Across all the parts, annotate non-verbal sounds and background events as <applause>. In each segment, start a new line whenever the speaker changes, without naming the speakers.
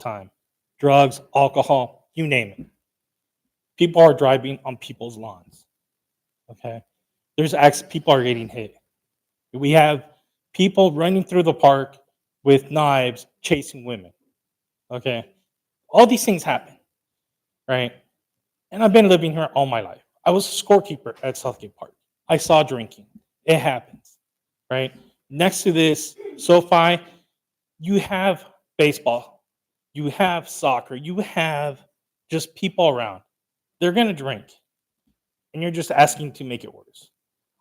time drugs, alcohol, you name it. People are driving on people's lawns. Okay. There's acts, people are getting hit. We have people running through the park with knives chasing women. Okay. All these things happen. Right. And I've been living here all my life. I was a scorekeeper at Southgate Park. I saw drinking. It happens. Right. Next to this, SoFi, you have baseball you have soccer, you have just people around. They're going to drink. And you're just asking to make it worse.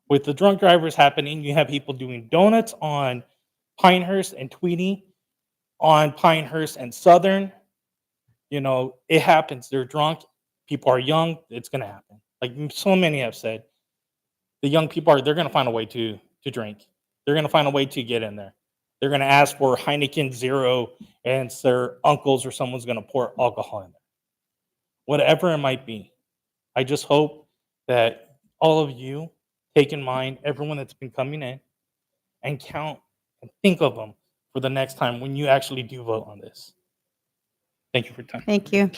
With the drunk drivers happening, you have people doing donuts on Pinehurst and Tweedy, on Pinehurst and Southern. You know, it happens. They're drunk. People are young. It's going to happen. Like so many have said, the young people are, they're going to find a way to, to drink. They're going to find a way to get in there. They're going to ask for Heineken Zero, and it's their uncles or someone's going to pour alcohol in there. Whatever it might be, I just hope that all of you take in mind everyone that's been coming in and count and think of them for the next time when you actually do vote on this. Thank you for your time.
Thank you.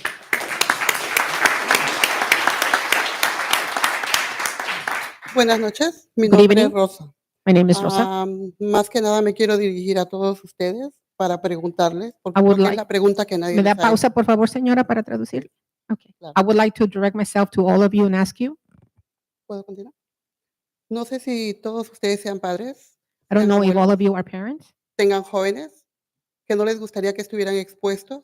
Buenas noches, mi
Good
nombre es
evening.
Rosa.
My name
Ah,
is Rosa.
Am, más que nada me quiero dirigir a todos ustedes para preguntarles, porque
I
creo
would
que es
like-
la pregunta que nadie
¿Me da
les ha hecho.
pausa, por favor, señora, para traducir? Okay.
Claro.
I would like to direct myself to all of you and ask you,
¿Puedo continuar? No sé si todos ustedes sean padres,
I don't
Señora
know if
Moreno.
all of you are parents,
tengan jóvenes, que no les gustaría que estuvieran expuestos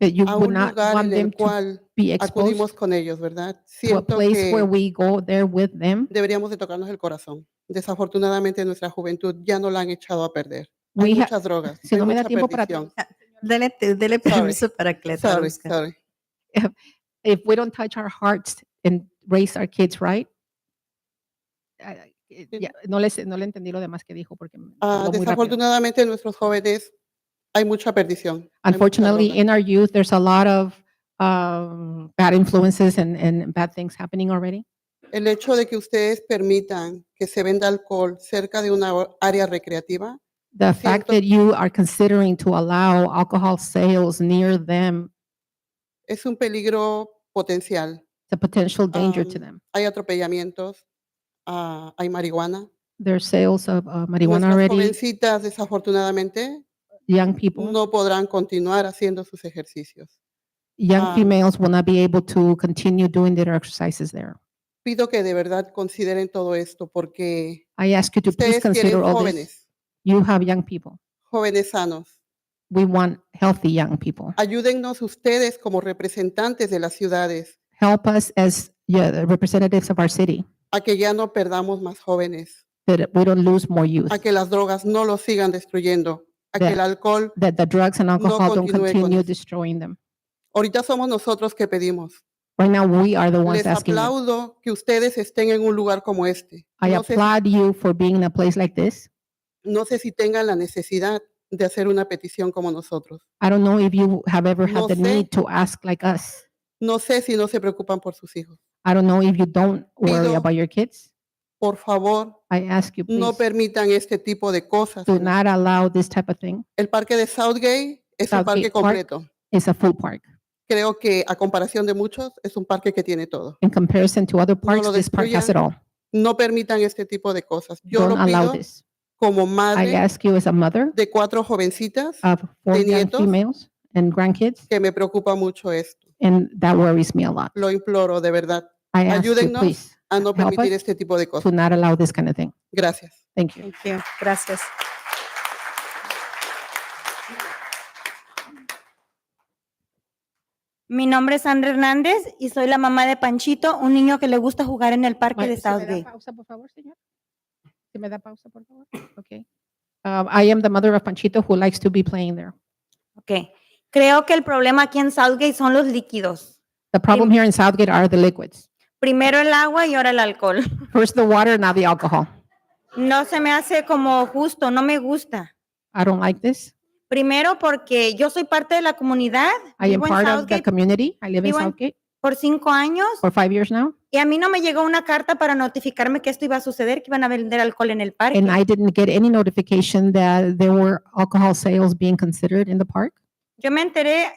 that you
a
would
un
not
lugar
want
en el
them to
cual
be
acudimos
exposed
con ellos, ¿verdad?
to a
Siento
place where
que
we go there with them.
deberíamos de tocarnos el corazón. Desafortunadamente nuestra juventud ya no la han echado a perder. Hay
We ha-
muchas drogas,
si
hay
no me da
mucha
tiempo para
perdición.
Dele, te- dele
Sorry.
permiso para que le
Sorry,
traduzca.
sorry.
if we don't touch our hearts and raise our kids right, I- I-
Sí.
ya, no, les, no le entendí lo demás que dijo porque me
Ah,
habló muy rápido.
desafortunadamente en nuestros jóvenes hay mucha perdición. hay mucha
Unfortunately,
droga.
in our youth, there's a lot of um, bad influences and, and bad things happening already.
El hecho de que ustedes permitan que se venda alcohol cerca de una o- área recreativa
The fact
Siento-
that you are considering to allow alcohol sales near them,
es un peligro potencial.
it's a potential danger to
Um,
them.
Hay atropellamientos, ah, hay marihuana.
There's sales of uh, marijuana
Nuestras
already.
jovencitas, desafortunadamente,
Young people,
no podrán continuar haciendo sus ejercicios.
young
um,
females will not be able to continue doing their exercises there.
Pido que de verdad consideren todo esto porque
I ask you to please
ustedes tienen
consider all this.
jóvenes,
You have young people.
jóvenes sanos.
We want healthy young people.
Ayúdennos ustedes como representantes de las ciudades
Help us as yeah, the representatives of our city
a que ya no perdamos más jóvenes,
that we don't lose more youth,
a que las drogas no los sigan destruyendo, a que
Ver.
el alcohol,
that the drugs and alcohol don't
continúe con
continue
eso.
destroying them.
ahorita somos nosotros que pedimos.
Right now, we are the ones
Les
asking. you.
aplaudo que ustedes estén en un lugar como este.
I
No sé, si-
applaud you for being in a place like this.
no sé si tengan la necesidad de hacer una petición como nosotros.
I don't know if you have ever had
No
the
sé.
need to ask like us.
No sé si no se preocupan por sus hijos.
I don't know if you don't worry
Pido-
about your kids.
Por favor,
I ask you,
no
please,
permitan este tipo de cosas.
do
en la-
not allow this type of thing.
El parque de Southgate es un parque
Southgate Park.
completo.
It's a full park.
Creo que a comparación de muchos, es un parque que tiene todo.
In comparison to other parks,
lo
this park has
destruyan.
it all.
No permitan este tipo de cosas. Yo
Don't
lo
allow
pido
this.
como
I
madre
ask you as a mother
de cuatro jovencitas
of four
de
young
nietos.
females and grandkids,
que me preocupa mucho esto.
and that worries me a lot.
Lo imploro de verdad
I ask you,
Ayúdennos
please,
a no
Help us
permitir este tipo de cosas.
to not allow this kind of thing.
Gracias.
Thank you.
Thank you. Gracias.
Mi nombre es Sandra Hernández y soy la mamá de Panchito, un niño que le gusta jugar en el parque
Ma-
de
¿se me da
Southgate.
pausa, por favor, señor? ¿Se me da pausa, por favor? Okay. Um, I am the mother of Panchito who likes to be playing there.
Ok. Creo que el problema aquí en Southgate son los líquidos.
The problem here in Southgate are
<laughs>
the liquids.
Primero el agua y ahora el alcohol.
First the water, now the alcohol.
No se me hace como justo, no me gusta.
I don't like this.
Primero porque yo soy parte de la comunidad,
I am
vivo en
part of the
Southgate
community. I live in
Vivo en-
Southgate
por cinco años
for five years now,
y a mí no me llegó una carta para notificarme que esto iba a suceder, que iban a vender alcohol en el parque.
and I didn't get any notification that there were alcohol sales being considered in the park.
Yo me enteré